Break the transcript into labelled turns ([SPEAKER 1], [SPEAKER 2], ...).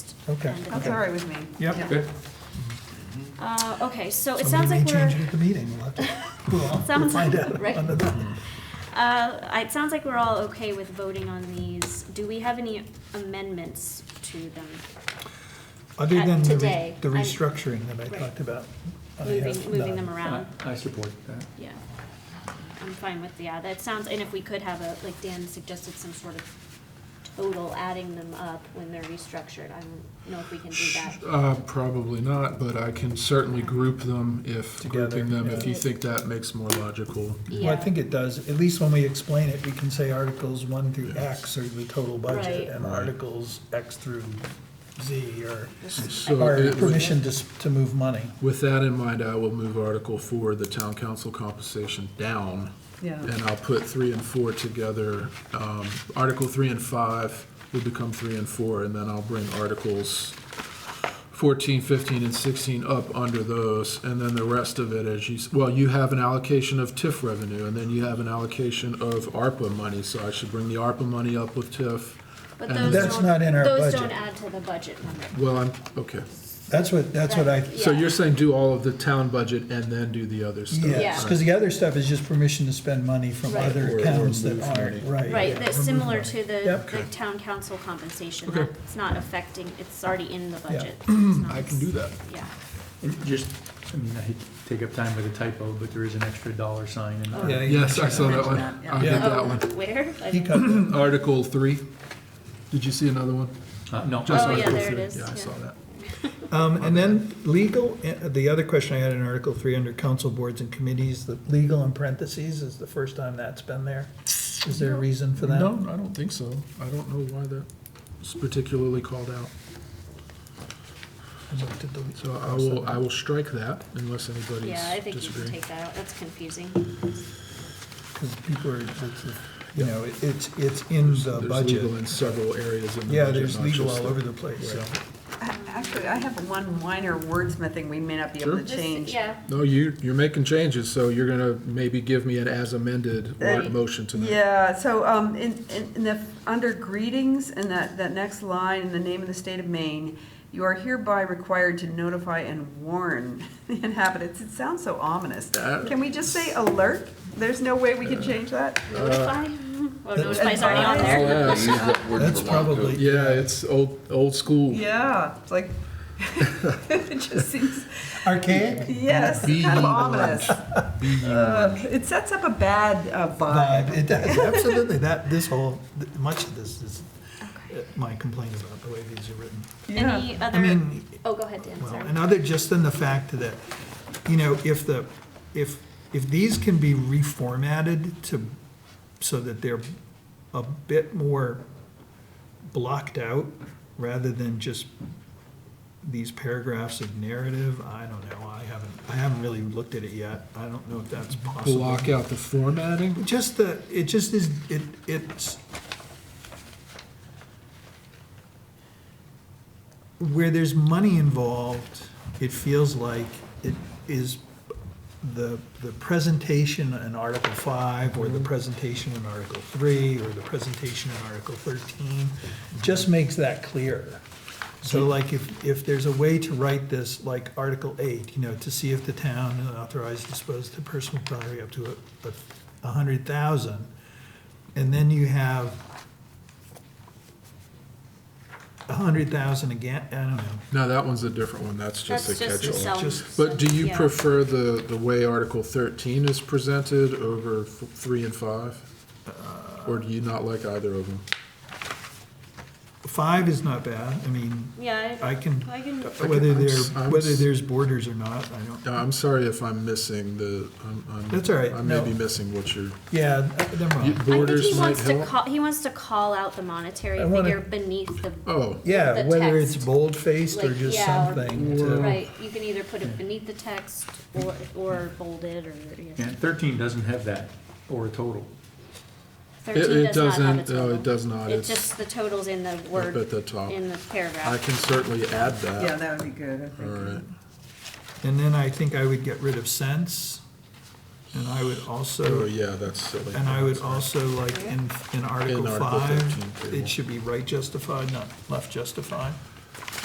[SPEAKER 1] Okay.
[SPEAKER 2] And-
[SPEAKER 3] That's all right with me.
[SPEAKER 1] Yep.
[SPEAKER 3] Yeah.
[SPEAKER 4] Good.
[SPEAKER 2] Uh, okay, so it
[SPEAKER 1] Somebody
[SPEAKER 2] sounds like
[SPEAKER 1] may
[SPEAKER 2] we're,
[SPEAKER 1] change it at the meeting, we'll have to, we'll have to
[SPEAKER 2] Sounds
[SPEAKER 1] find
[SPEAKER 2] like-
[SPEAKER 1] out.
[SPEAKER 2] right.
[SPEAKER 1] on the thing.
[SPEAKER 2] uh, it sounds like we're all okay with voting on these. Do we have any amendments to them?
[SPEAKER 1] Other
[SPEAKER 2] At
[SPEAKER 1] than the re-
[SPEAKER 2] today,
[SPEAKER 1] the
[SPEAKER 2] I'm-
[SPEAKER 1] restructuring that I
[SPEAKER 2] Right.
[SPEAKER 1] talked about. I have
[SPEAKER 2] Moving, moving
[SPEAKER 1] none.
[SPEAKER 2] them around?
[SPEAKER 4] I I support that.
[SPEAKER 2] Yeah. I'm fine with, yeah, that sounds, and if we could have a, like Dan suggested, some sort of total adding them up when they're restructured. I don't know if we can do that.
[SPEAKER 5] Uh, probably not, but I can certainly group them if,
[SPEAKER 1] Together,
[SPEAKER 5] grouping them, if you
[SPEAKER 2] yeah.
[SPEAKER 5] think that makes more logical.
[SPEAKER 1] Well, I
[SPEAKER 2] Yeah.
[SPEAKER 1] think it does, at least when we explain it, we can say articles one through X are the total budget,
[SPEAKER 2] Right.
[SPEAKER 1] and articles X through Z are,
[SPEAKER 5] So
[SPEAKER 1] are
[SPEAKER 5] it-
[SPEAKER 1] permission to, s- to move money.
[SPEAKER 5] with that in mind, I will move Article Four, the town council compensation, down.
[SPEAKER 3] Yeah,
[SPEAKER 5] And I'll put three and four together. Um, Article three and five will become three and four, and then I'll bring Articles 14, 15, and 16 up under those, and then the rest of it, as you, s- well, you have an allocation of TIF revenue, and then you have an allocation of ARPA money, so I should bring the ARPA money up with TIF.
[SPEAKER 2] But
[SPEAKER 5] And
[SPEAKER 2] those
[SPEAKER 1] that's
[SPEAKER 2] don't-
[SPEAKER 1] not in our
[SPEAKER 2] Those don't
[SPEAKER 1] budget.
[SPEAKER 2] add to the budget number.
[SPEAKER 5] Well, I'm, okay.
[SPEAKER 1] That's what, that's what I,
[SPEAKER 5] So
[SPEAKER 2] Yeah.
[SPEAKER 5] you're saying do all of the town budget and then do the other stuff?
[SPEAKER 1] yes, because the other stuff is just permission to spend money from
[SPEAKER 2] Right.
[SPEAKER 1] other
[SPEAKER 5] Or- or
[SPEAKER 1] accounts that
[SPEAKER 5] move
[SPEAKER 1] aren't,
[SPEAKER 5] money.
[SPEAKER 1] right.
[SPEAKER 2] Right,
[SPEAKER 1] yeah,
[SPEAKER 2] that's
[SPEAKER 1] remove
[SPEAKER 2] similar
[SPEAKER 1] money.
[SPEAKER 2] to the,
[SPEAKER 1] Yep.
[SPEAKER 2] the town council compensation.
[SPEAKER 5] Okay.
[SPEAKER 2] That- It's not affecting, it's already in the
[SPEAKER 1] Yeah.
[SPEAKER 2] budget. It's not-
[SPEAKER 5] I can do that.
[SPEAKER 2] Yeah,
[SPEAKER 4] And just, I mean, I hate to take up time with a typo, but there is an extra dollar sign in
[SPEAKER 1] Yeah,
[SPEAKER 4] there.
[SPEAKER 1] you-
[SPEAKER 5] Yes, I saw that one.
[SPEAKER 3] Mention that,
[SPEAKER 5] I did
[SPEAKER 1] yeah.
[SPEAKER 5] that
[SPEAKER 2] Oh,
[SPEAKER 5] one.
[SPEAKER 2] where? I
[SPEAKER 1] He
[SPEAKER 2] didn't-
[SPEAKER 1] cut that.
[SPEAKER 5] Article three. Did you see another one?
[SPEAKER 4] Uh, No.
[SPEAKER 5] Just
[SPEAKER 2] Oh, yeah,
[SPEAKER 5] Article
[SPEAKER 2] there it
[SPEAKER 5] three.
[SPEAKER 2] is,
[SPEAKER 5] Yeah, I
[SPEAKER 2] yeah.
[SPEAKER 5] saw that.
[SPEAKER 1] Um, and then legal, uh, the other question I had in Article three under council boards and committees, the legal in parentheses is the first time that's been there. Is there a reason for that?
[SPEAKER 5] No, I don't think so. I don't know why that's particularly called out.
[SPEAKER 1] I'd like to delete-
[SPEAKER 5] So I will, I will strike that unless anybody's
[SPEAKER 2] Yeah, I think you can
[SPEAKER 5] disagreeing.
[SPEAKER 2] take that out, that's confusing.
[SPEAKER 1] Because people are, it's, you know, it- it's, it's in the
[SPEAKER 5] There's legal
[SPEAKER 1] budget.
[SPEAKER 5] in several areas in the budget.
[SPEAKER 1] Yeah, there's
[SPEAKER 5] not
[SPEAKER 1] legal
[SPEAKER 5] just
[SPEAKER 1] all
[SPEAKER 5] the-
[SPEAKER 1] over the place, so.
[SPEAKER 3] A- actually, I have one minor wordsmithing we may not be able to
[SPEAKER 2] This-
[SPEAKER 3] change.
[SPEAKER 2] Yeah,
[SPEAKER 5] No, you, you're making changes, so you're gonna maybe give me an as amended or
[SPEAKER 3] Uh,
[SPEAKER 5] motion tonight.
[SPEAKER 3] Yeah, so, um, in, in, in the, under greetings, and that, that next line, in the name of the state of Maine, you are hereby required to notify and warn the inhabitants, it sounds so ominous.
[SPEAKER 5] Uh,
[SPEAKER 3] Can we just say alert? There's no way we can change that?
[SPEAKER 1] Uh,
[SPEAKER 2] notify, oh, notify's already on
[SPEAKER 3] advise-
[SPEAKER 2] there.
[SPEAKER 4] I'll add-
[SPEAKER 6] Use that word
[SPEAKER 1] That's
[SPEAKER 6] for long code.
[SPEAKER 1] probably-
[SPEAKER 5] Yeah, it's old, old school.
[SPEAKER 3] Yeah, it's like, it just seems,
[SPEAKER 1] Archaic
[SPEAKER 3] yes,
[SPEAKER 5] Be
[SPEAKER 3] kind of
[SPEAKER 5] alert.
[SPEAKER 3] ominous. Uh, It sets up a bad uh,
[SPEAKER 1] vibe,
[SPEAKER 3] vibe.
[SPEAKER 1] it does, absolutely, that, this whole, th- much of this is uh, my complaint about the way these are written.
[SPEAKER 3] Yeah.
[SPEAKER 2] Any
[SPEAKER 1] I
[SPEAKER 2] other,
[SPEAKER 1] mean,
[SPEAKER 2] oh, go ahead, Dan,
[SPEAKER 1] Well,
[SPEAKER 2] sorry.
[SPEAKER 1] and other, just in the fact that, you know, if the, if, if these can be reformatted to, so that they're a bit more blocked out, rather than just these paragraphs of narrative, I don't know, I haven't, I haven't really looked at it yet, I don't know if that's possible.
[SPEAKER 5] Block out the formatting.
[SPEAKER 1] Just the, it just is, it, it's. Where there's money involved, it feels like it is the, the presentation in Article five, or the presentation in Article three, or the presentation in Article thirteen, just makes that clearer. So like if, if there's a way to write this, like Article 8, you know, to see if the town authorized dispose of the personal property up to a- a 100,000, and then you have 100,000 again, I don't know.
[SPEAKER 5] No, that one's a different one. That's just a
[SPEAKER 2] That's just the
[SPEAKER 5] catch-all.
[SPEAKER 2] self.
[SPEAKER 1] Just-
[SPEAKER 5] But do you
[SPEAKER 2] yeah.
[SPEAKER 5] prefer the, the way Article 13 is presented over f- 3 and 5?
[SPEAKER 1] Uh,
[SPEAKER 5] Or do you not like either of them?
[SPEAKER 1] 5 is not bad, I mean,
[SPEAKER 2] Yeah,
[SPEAKER 1] I can,
[SPEAKER 2] I can,
[SPEAKER 1] whether
[SPEAKER 5] I'm
[SPEAKER 1] there,
[SPEAKER 5] s- I'm
[SPEAKER 1] whether
[SPEAKER 5] s-
[SPEAKER 1] there's borders or not, I don't.
[SPEAKER 5] No, I'm sorry if I'm missing the, I'm- I'm.
[SPEAKER 1] That's all right,
[SPEAKER 5] I may
[SPEAKER 1] no.
[SPEAKER 5] be missing what you're,
[SPEAKER 1] Yeah, never
[SPEAKER 5] you-
[SPEAKER 1] mind.
[SPEAKER 2] I think he
[SPEAKER 5] borders might
[SPEAKER 2] wants to
[SPEAKER 5] help.
[SPEAKER 2] call, he wants to call out the monetary
[SPEAKER 1] I wanna-
[SPEAKER 2] figure beneath the,
[SPEAKER 5] Oh,
[SPEAKER 1] Yeah,
[SPEAKER 2] The
[SPEAKER 1] whether it's
[SPEAKER 2] text.
[SPEAKER 1] bold-faced or
[SPEAKER 2] Like,
[SPEAKER 1] just
[SPEAKER 2] yeah, or-
[SPEAKER 1] something to,
[SPEAKER 2] right, you can either put it beneath the text or, or bolded or, yeah.
[SPEAKER 4] And 13 doesn't have that, or a total.
[SPEAKER 5] it,
[SPEAKER 2] 13
[SPEAKER 5] it
[SPEAKER 2] does not have a
[SPEAKER 5] doesn't, no,
[SPEAKER 2] total.
[SPEAKER 5] it does not.
[SPEAKER 2] It's
[SPEAKER 5] It's
[SPEAKER 2] just the totals in the
[SPEAKER 5] up at
[SPEAKER 2] word,
[SPEAKER 5] the top.
[SPEAKER 2] in the
[SPEAKER 5] I
[SPEAKER 2] paragraph.
[SPEAKER 5] can certainly
[SPEAKER 3] Yeah,
[SPEAKER 5] add that.
[SPEAKER 3] that would be good, I
[SPEAKER 5] All right.
[SPEAKER 3] think.
[SPEAKER 1] and then I think I would get rid of sense, and I would also.
[SPEAKER 5] Oh, yeah, that's silly.
[SPEAKER 1] And I would also like in, in Article
[SPEAKER 5] Article 13,
[SPEAKER 1] five,
[SPEAKER 5] table.
[SPEAKER 1] it should be right justified, not left justified.